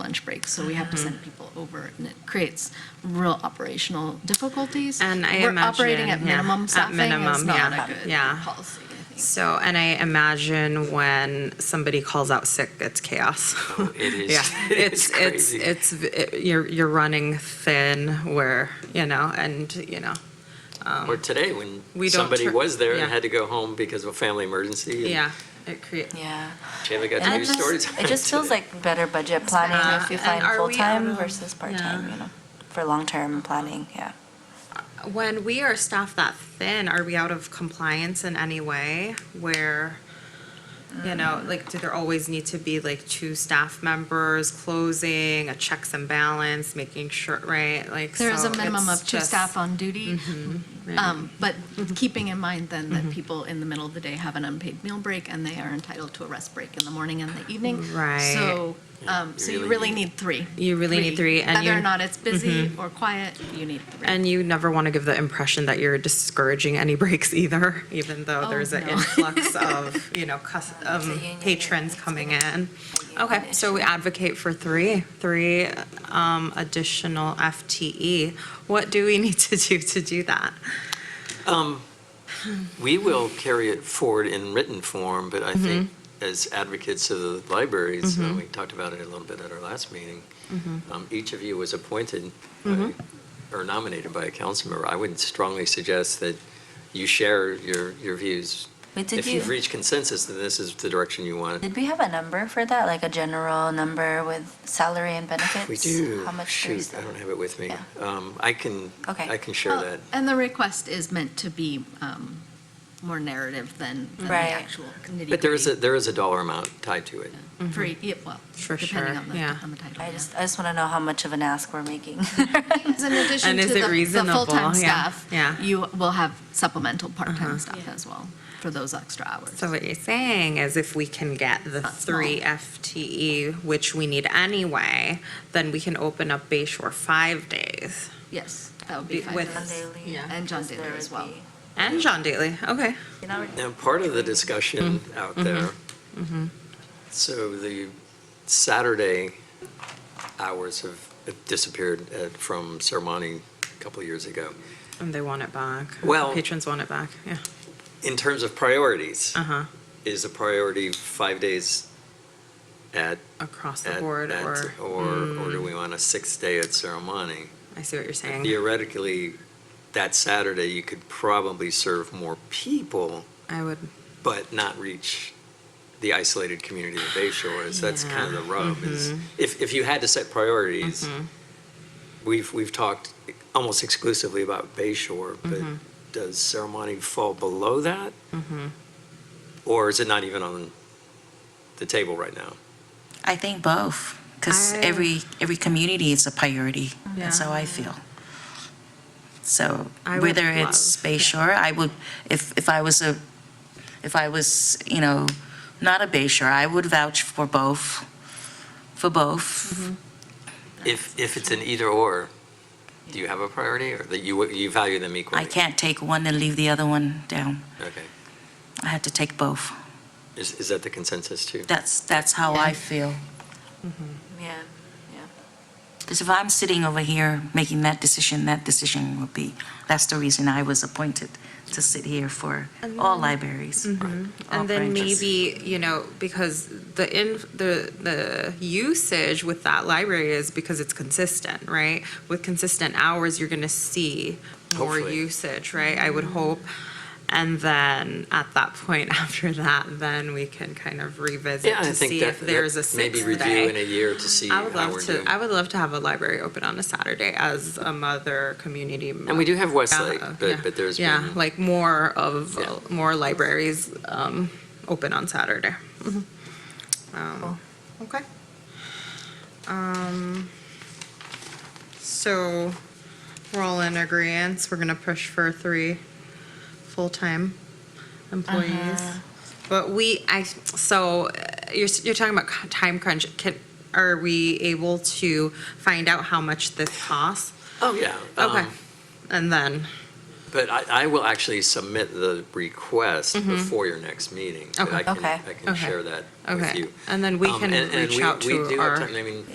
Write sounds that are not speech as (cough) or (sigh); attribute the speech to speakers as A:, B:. A: so we have to
B: Mm-hmm.
A: send people over, and it creates real operational difficulties.
B: And I
A: We're operating at
B: imagine, yeah,
A: minimum
B: at
A: staffing, and it's
B: minimum,
A: not
B: yeah,
A: a good
B: yeah.
A: policy, I think.
B: So, and I imagine when somebody calls out sick, it's chaos.
C: Oh, (laughs) It
B: (laughs)
C: is.
B: Yeah, it's, it's,
C: crazy.
B: it's, it- you're, you're running thin where, you know, and, you know,
C: Or today, when
B: We don't
C: somebody
B: tur-
C: was there
B: yeah.
C: and had to go home because of a family emergency. and
B: yeah, it creates.
D: Yeah.
C: Jamie got the
D: And it
C: news
D: just-
C: stories. on
D: It
C: (laughs)
D: just feels
C: today.
D: like better budget planning if you
B: Uh,
D: find
B: and are we out
D: full-time
B: of-
D: versus part-time,
B: yeah.
D: you know, for long-term planning, yeah.
B: When we are staffed that thin, are we out of compliance in any way where, you
A: Mm.
B: know, like, do there always need to be like two staff members closing, a checks and balance, making sure, right, like,
A: There is a
B: so
A: minimum
B: it's
A: of two
B: just- Mm-hmm,
A: staff on duty, um, but keeping in mind then that people in the middle of the day have an unpaid meal break, and they are entitled to a rest break in the morning and the evening.
B: Right.
A: So, um, so you really need three.
B: You really need three, and
A: Whether
B: you- Mm-hmm.
A: or not it's busy or quiet, you need three.
B: And you never want to give the impression that you're discouraging any (laughs) breaks either, even though
A: Oh,
B: there's an
A: no.
B: influx of, you know, cus- um,
D: union, yeah,
B: patrons
D: it's
B: coming
D: been
B: in.
D: a
B: Okay,
D: union
B: so we advocate for three, three um, additional FTE. What do we (laughs) need to do to do that?
C: Um, We will carry it forward in written form, but I think
B: Mm-hmm.
C: as advocates of the libraries, uh, we talked about it a little bit at our last meeting,
B: Mm-hmm.
C: um, each of you was appointed by- or nominated by a council member. I would strongly suggest that you share your, your views.
D: But did
C: If you've
D: you,
C: reached consensus, then this is the direction you want.
D: did we have a number for that, like a general number with salary and benefits?
C: We do.
D: How much do we
C: Shoot, I
D: sell?
C: don't have it with me.
D: Yeah.
C: Um, I can,
D: Okay. Oh.
C: I can share
A: Well,
C: that.
A: Oh, And the request is meant to be um, more narrative than than the
D: Right.
A: actual nitty-gritty.
C: But there is a, there is a dollar amount tied to it.
A: For, e- yeah, well,
B: Mm-hmm. For
A: depending
B: sure,
A: on the,
B: yeah.
A: on the title.
D: I
A: yeah.
D: just, I just want to know how much of an ask we're making. (laughs)
A: Because
B: (laughs)
A: in addition
B: And
A: to
B: is
A: the
B: it
A: the
B: reasonable?
A: full-time
B: Yeah,
A: staff,
B: yeah. Uh-huh.
A: you will have supplemental part-time staff as well for those extra hours.
B: So what you're saying is if we can get the
A: Not small.
B: three FTE, which we need anyway, then we can open up Bay Shore five days.
A: Yes, that would
B: Be-
A: be fine.
B: with-
D: John Daly,
B: Yeah.
A: And John
D: because
A: Daly
D: there
A: as
D: would
A: well.
D: be-
B: And John Daly, okay.
D: You know,
C: Now, part of the
D: Mm-hmm.
C: discussion out there, so the Saturday hours have have disappeared uh, from Sermoni a couple of years ago.
B: And they want it back.
C: Well-
B: Patrons want it back, yeah.
C: In terms of priorities,
D: Uh.
B: Uh-huh,
C: is a priority five days at?
B: across the
C: at- oh.
B: board,
C: at-
B: or,
C: Or, or
D: Hmm.
C: do we want a sixth day at Sermoni?
B: I see what you're saying.
C: Theoretically, that Saturday, you could probably serve more people
B: I would,
C: but not reach the isolated community of Bay Shore. is That's
B: Yeah.
C: kind of the rub. Is if, if you had to set priorities, we've we've talked almost exclusively about Bay Shore, but does ceremony fall below that, or is it not even on the table right now?
E: I think both, because
B: I-
E: every, every community is a priority. That's
B: Yeah.
E: how I feel. So
B: I would
E: whether it's
B: love-
E: Bay
B: yeah.
E: Shore, I would, if, if I was a, if I was, you know, not a Bay Shore, I would vouch for both, for
B: Mm-hmm.
E: both.
C: If if it's an either or, do you have a priority, or that you you value them equally?
E: I can't take one and leave the other one down.
C: Okay.
E: I have to take both.
C: Is, is that the consensus too?
E: That's, that's how I
D: Yeah.
E: feel.
D: Yeah.
E: Because if I'm sitting over here making that decision, that decision will be, that's the reason I was appointed to sit here for all libraries. all
B: Mm-hmm. and then
E: branches.
B: maybe, you know, because the in, the, the usage with that library is because it's consistent, right? With consistent hours, you're gonna see more
C: Hopefully.
B: usage, right? I would hope. And then at that point, (laughs) after that, then we can kind of revisit
C: Yeah, I
B: to
C: think
B: see
C: that,
B: if there's a
C: that maybe
B: sixth
C: review
B: day.
C: in a year to see
B: I would
C: how
B: love
C: we're
B: to.
C: doing.
B: I would love to have a library open on a Saturday as a mother community.
C: And we do have Westlake,
B: Yeah,
C: but, but there's
B: yeah,
C: been-
B: like more of
C: Yeah.
B: more libraries um, open on Saturday. Mhm. Um, Okay. Um, so we're all in agreement. We're gonna push for three full-time employees. But we, I, so uh, you're, s- you're talking about c- time crunch. Can, are we able to find out how much this costs?
C: Oh, yeah.
B: Okay.
C: um,
B: And then,
C: But I, I will actually submit the request before your next meeting. but I
B: Mm-hmm. Okay.
C: can-
D: Okay.
C: I can
B: Okay.
C: share that with
B: okay.
C: you.
B: And then we
C: Um,
B: can
C: and- and
B: reach
C: we-
B: out
C: we
B: to
C: do have
B: our.
C: time, I mean,